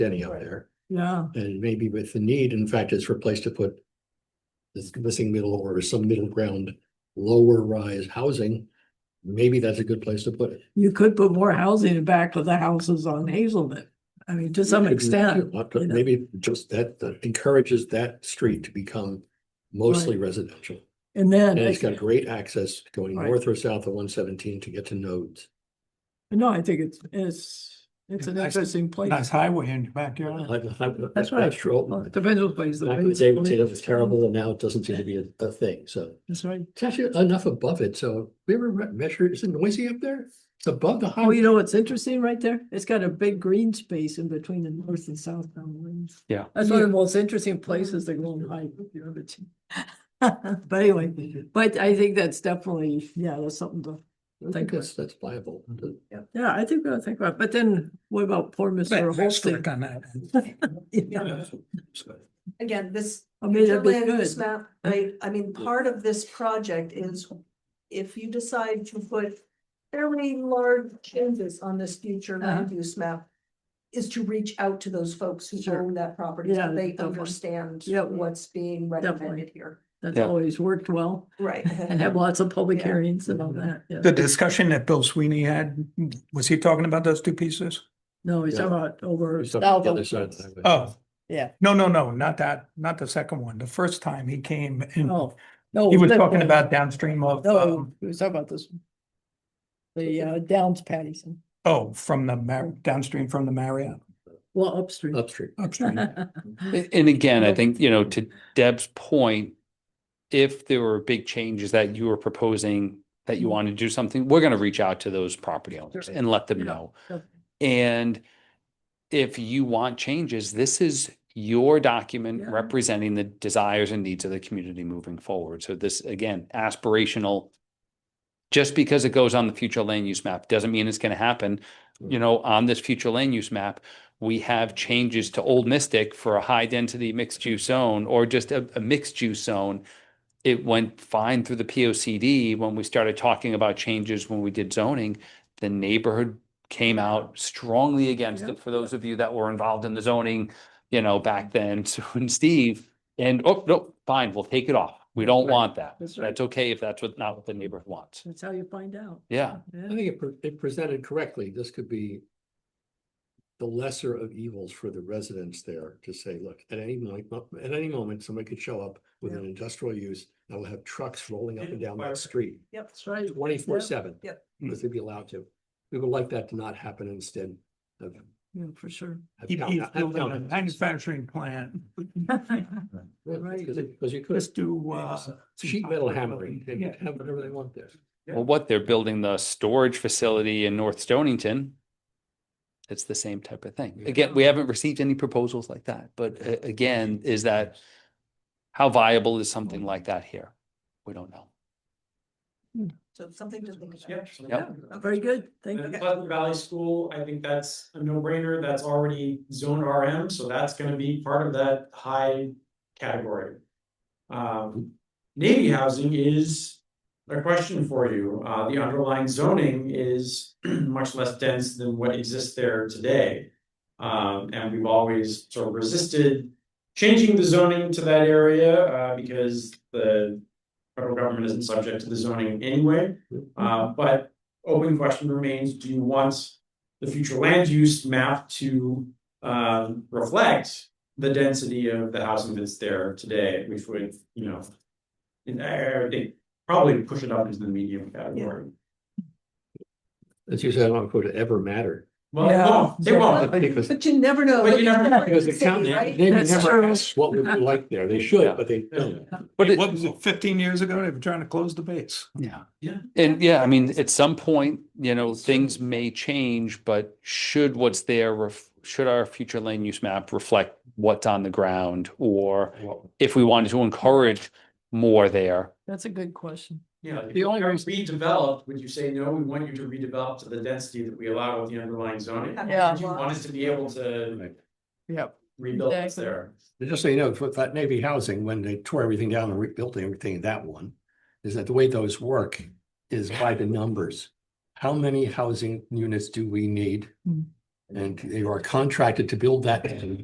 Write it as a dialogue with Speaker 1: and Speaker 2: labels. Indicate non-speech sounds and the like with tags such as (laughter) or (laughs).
Speaker 1: Denny up
Speaker 2: Right.
Speaker 1: there,
Speaker 3: Yeah,
Speaker 1: and maybe with the need, in fact, it's replaced to put. This missing middle or some middle ground, lower rise housing, maybe that's a good place to put it.
Speaker 3: you could put more housing in back of the houses on Hazelton. I mean, to some
Speaker 1: Maybe-
Speaker 3: extent,
Speaker 1: What-
Speaker 3: you know.
Speaker 1: Maybe just that that encourages that street to become mostly residential.
Speaker 3: and then,
Speaker 1: And it's got great access going
Speaker 3: Right.
Speaker 1: north or south of one seventeen to get to nodes.
Speaker 3: no, I think it's, it's, it's an
Speaker 4: Nice-
Speaker 3: interesting place.
Speaker 4: Nice highway in your backyard.
Speaker 1: That's
Speaker 3: That's right. Well,
Speaker 1: true.
Speaker 3: it Depends what place. the
Speaker 1: Back in the
Speaker 3: place
Speaker 1: day, we said it was
Speaker 3: is. um,
Speaker 1: terrible, and now it doesn't seem to be a, a thing, so.
Speaker 3: That's right.
Speaker 1: It's actually enough above it, so we ever re- measured, is it noisy up there? It's above the
Speaker 3: Oh, you
Speaker 1: highway.
Speaker 3: know what's interesting right there? It's got a big green space in between the north and southbound lanes.
Speaker 4: Yeah.
Speaker 3: That's one of the most interesting places to go and hike if you ever seen. (laughs) But anyway, but I think that's definitely, yeah, that's something to,
Speaker 1: I
Speaker 3: think
Speaker 1: think that's, that's viable.
Speaker 3: yeah, I think, I think about, but then what about poor Mr. Holston?
Speaker 4: on that.
Speaker 3: (laughs) Yeah.
Speaker 2: Again, this
Speaker 3: I mean, that'd be
Speaker 2: land use
Speaker 3: good.
Speaker 2: map, I, I mean, part of this project is if you decide to put fairly large changes on this future
Speaker 3: Uh-huh.
Speaker 2: land use map, is to reach out to those folks who
Speaker 3: Sure.
Speaker 2: own that property,
Speaker 3: Yeah,
Speaker 2: so they
Speaker 3: definitely.
Speaker 2: understand
Speaker 3: Yeah.
Speaker 2: what's being recommended here.
Speaker 3: That's
Speaker 4: Yeah.
Speaker 3: always worked
Speaker 2: (laughs)
Speaker 3: well
Speaker 2: Right.
Speaker 3: and have lots of public
Speaker 2: Yeah.
Speaker 3: hearings and all that. yeah.
Speaker 4: The discussion that Bill Sweeney had, was he talking about those two pieces?
Speaker 3: No, he's
Speaker 1: Yeah.
Speaker 3: talking about over.
Speaker 1: It's up to the other side of the highway.
Speaker 4: Oh.
Speaker 3: Yeah.
Speaker 4: No, no, no, not that, not the second one. The first time he came and
Speaker 3: Oh, no.
Speaker 4: he was
Speaker 3: that
Speaker 4: talking
Speaker 3: one.
Speaker 4: about downstream of,
Speaker 3: No,
Speaker 4: um,
Speaker 3: we was talking about this. one. The uh, Downs Patterson,
Speaker 4: oh, from the Mar- downstream from the Marriott
Speaker 1: (laughs)
Speaker 3: well, upstream.
Speaker 1: Upstream.
Speaker 3: (laughs)
Speaker 4: upstream.
Speaker 5: A- And again, I
Speaker 3: Well-
Speaker 5: think, you know, to Deb's point, if there were big changes that you were proposing, that you
Speaker 3: Mhm.
Speaker 5: want to do something, we're going to reach out to those property owners
Speaker 3: Sure.
Speaker 5: and let them
Speaker 3: Yeah,
Speaker 5: know.
Speaker 3: definitely.
Speaker 5: And if you want changes, this is your document
Speaker 3: Yeah.
Speaker 5: representing the desires and needs of the community moving forward. So this, again, aspirational. Just because it goes on the future land use map doesn't mean it's going to happen. You know, on this future land use map, we have changes to Old Mystic for a high density mixed use zone or just a, a mixed use zone. It went fine through the P O C D when we started talking about changes when we did zoning. The neighborhood came out strongly against
Speaker 3: Yeah.
Speaker 5: it for those of you that were involved in the zoning, you know, back then, (laughs) Sue and Steve. And, oh, no, fine, we'll take it off. We don't
Speaker 3: Right.
Speaker 5: want that.
Speaker 3: That's right.
Speaker 5: That's okay if that's what, not what the neighborhood wants.
Speaker 3: That's how you find out.
Speaker 5: Yeah.
Speaker 1: I
Speaker 3: Yeah.
Speaker 1: think it, pre- it presented correctly. This could be the lesser of evils for the residents there to say, look, at any moment, at any moment, somebody could show up with
Speaker 3: Yeah.
Speaker 1: an industrial use that will have trucks rolling up and down that
Speaker 4: Perfect.
Speaker 1: street.
Speaker 3: That's right.
Speaker 1: twenty-four seven.
Speaker 2: Yep.
Speaker 1: Because they'd be allowed to. We would like that to not happen instead of.
Speaker 3: Yeah, for (laughs) sure.
Speaker 1: have
Speaker 4: He-
Speaker 1: town-
Speaker 4: He's
Speaker 1: have
Speaker 4: building a
Speaker 1: town-
Speaker 4: manufacturing plant.
Speaker 1: Yeah,
Speaker 3: Right.
Speaker 1: Because it- 'cause you could,
Speaker 4: Just do, uh. some
Speaker 1: sheet metal
Speaker 4: concrete
Speaker 1: hammering, they
Speaker 4: building.
Speaker 1: could have whatever they want there.
Speaker 5: Well, what they're building the storage facility in North Stonington. It's the same type of thing.
Speaker 1: Yeah.
Speaker 5: Again, we haven't received any proposals like that, but uh, again, is that how viable is something like that here? We don't know.
Speaker 2: So something to think
Speaker 6: Yeah.
Speaker 2: about.
Speaker 5: Yep.
Speaker 3: Very good. Thank
Speaker 6: And
Speaker 3: you.
Speaker 6: then Pleasant Valley School, I think that's a no brainer, that's already zoned RM, so that's gonna be part of that high category. Um, Navy housing is a question for you, uh, the underlying zoning is (clears throat) much less dense than what exists there today. Um, and we've always sort of resisted changing the zoning to that area, uh, because the federal government isn't subject to the zoning anyway. Uh, but open question remains, do you want the future land use map to um reflect the density of the housing that's there today, which would, you know, and I I think probably push it up into the medium category.
Speaker 1: As you said, I don't quote it ever matter.
Speaker 6: Well,
Speaker 3: Yeah.
Speaker 6: no, they won't.
Speaker 1: Because
Speaker 2: But you never know.
Speaker 6: But you never know.
Speaker 1: because the
Speaker 2: City,
Speaker 1: county,
Speaker 2: right?
Speaker 1: they
Speaker 3: That's
Speaker 1: never
Speaker 3: true.
Speaker 1: ask what would you like there. They
Speaker 5: Yeah.
Speaker 1: should, but they don't.
Speaker 5: But it-
Speaker 4: What was it, fifteen years ago? They were trying to close the base.
Speaker 5: Yeah.
Speaker 6: Yeah.
Speaker 5: And yeah, I mean, at some point, you know, things may change, but should what's there, ref- should our future land use map reflect what's on the ground? Or if we wanted to encourage more there,
Speaker 3: That's a good question.
Speaker 6: Yeah, if
Speaker 1: The
Speaker 6: you
Speaker 1: only
Speaker 6: were
Speaker 1: reason-
Speaker 6: redeveloped, would you say, no, we want you to redevelop to the density that we allow with the underlying zoning?
Speaker 3: Yeah.
Speaker 6: You want us to be able to
Speaker 1: Right.
Speaker 6: rebuild what's
Speaker 3: Exactly.
Speaker 6: there?
Speaker 1: And Just so you know, for that Navy housing, when they tore everything down and rebuilt everything, in that one, is that the way those work is by the numbers. How many housing units do we need?
Speaker 3: Mm.
Speaker 1: And you are contracted to build that